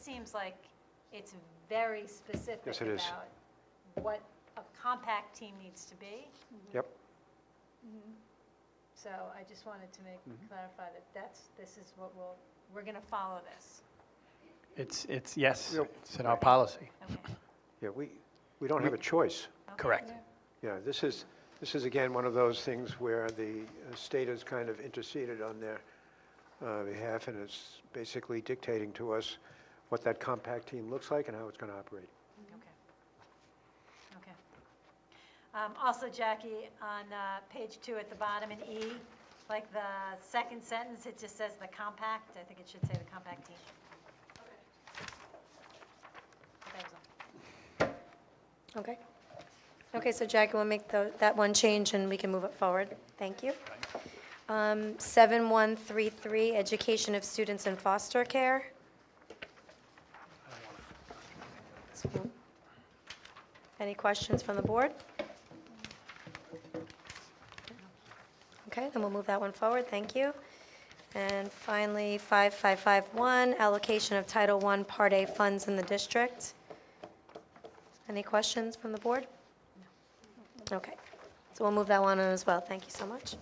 seems like it's very specific Yes, it is. about what a compact team needs to be. Mm-hmm. Yep, So I just wanted to make, Mm-hmm. clarify that that's, this is what we'll, we're going to follow this. It's, it's, yes, Yep. it's in our policy, Okay. yeah, we, we don't have a choice. Okay. correct. Yeah, this is, this is again, one of those things where the uh, state has kind of interceded on their uh, behalf, and it's basically dictating to us what that compact team looks like and how it's going to operate. Okay. Okay. Um, Also, Jackie, on uh, page two at the bottom in E, like the second sentence, it just says the compact. I think it should say the compact team. That was all. Okay. Okay, so Jackie will make tho- that one change, and we can move it forward. Thank you. Um, 7133, education of students in foster care. Any questions from the board? Okay, then we'll move that one forward, thank you. And finally, 5551, allocation of Title I Part A funds in the district. Any questions from the board? Okay, so we'll move that one on as well, thank you so much.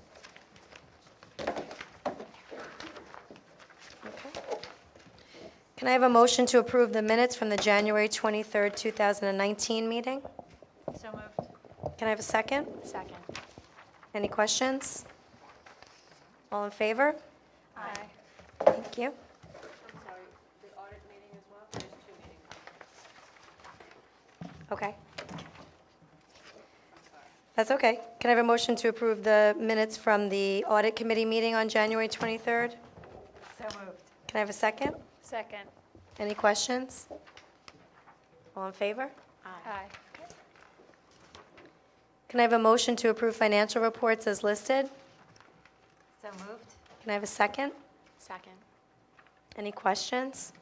Okay. Can I have a motion to approve the minutes from the January 23rd, 2019 meeting? So moved. Can I have a second? Second. Any questions? All in favor? Aye. Thank you. I'm sorry, the audit meeting as well, there's two meetings, Okay, I'm sorry. that's okay. Can I have a motion to approve the minutes from the Audit Committee meeting on January 23rd? So moved. Can I have a second? Second. Any questions? All in favor? Aye. Can I have a motion to approve financial reports as listed? So moved. Can I have a second? Second. Any questions?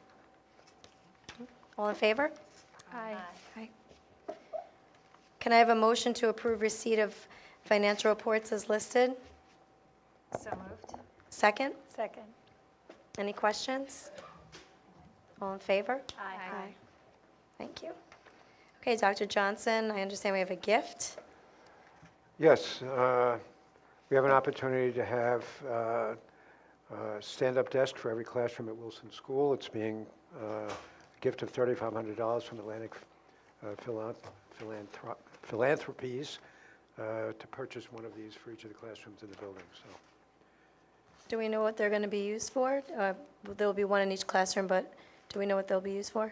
All in favor? Aye. Aye. Can I have a motion to approve receipt of financial reports as listed? So moved. Second? Second. Any questions? All in favor? Aye. Thank you. Okay, Dr. Johnson, I understand we have a gift. Yes, uh, we have an opportunity to have uh, a stand-up desk for every classroom at Wilson School. It's being uh, a gift of $3,500 from Atlantic uh, Philan- Philanthrop- Philanthropies uh, to purchase one of these for each of the classrooms in the building, so. Do we know what they're going to be used for? Uh, There'll be one in each classroom, but do we know what they'll be used for?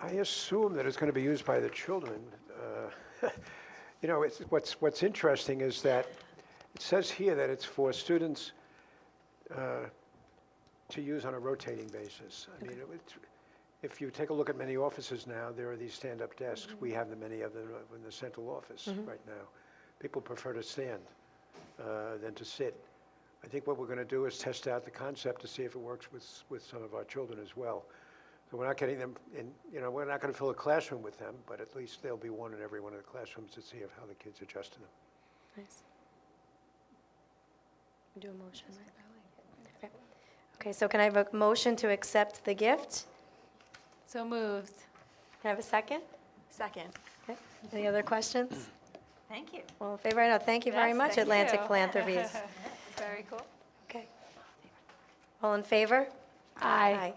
I assume that it's going to be used by the children. Uh, You know, it's, what's, what's interesting is that it says here that it's for students uh, to use on a rotating basis. I mean, it would- if you take a look at many offices now, there are these stand-up desks. We have the many of them in the central office right now. People prefer to stand uh, than to sit. I think what we're going to do is test out the concept to see if it works with, with some of our children as well. So we're not getting them in, you know, we're not going to fill a classroom with them, but at least there'll be one in every one of the classrooms to see if how the kids adjust to them. Nice. We Do a motion, right? Okay. Okay, so can I have a motion to accept the gift? So moved. Can I have a second? Second. Okay. Any other questions? Thank you. All in favor, I know, thank you very Yes, much, thank Atlantic you. Philanthropies. Very cool. Okay. All in favor? Aye.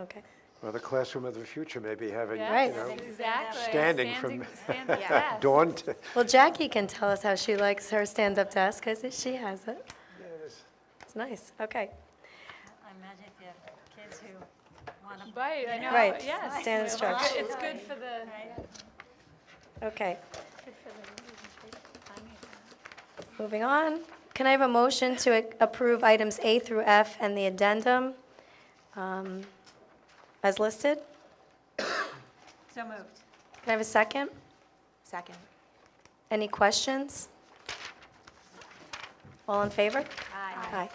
Okay. Well, the classroom of the future may be having, you Yes, know, Exactly. standing from Standing desk. dawn to. Well, Jackie can tell us how she likes her stand-up desk, because she has it. It's nice, okay. I imagine if you have kids who want to. Right, I know. Right, Oh, Yes. stand It's instruction. good- It's good for the, Okay. Moving on, can I have a motion to ac- approve items A through F and the addendum um, as listed? So moved. Can I have a second? Second. Any questions? All in favor? Aye. Hi.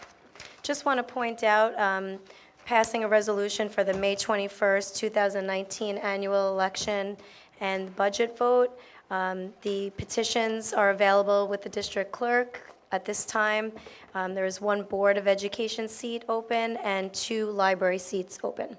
Just want to point out, um, passing a resolution for the May 21st, 2019 annual election and budget vote. Um, The petitions are available with the district clerk at this time. Um, There is one Board of Education seat open and two library seats open.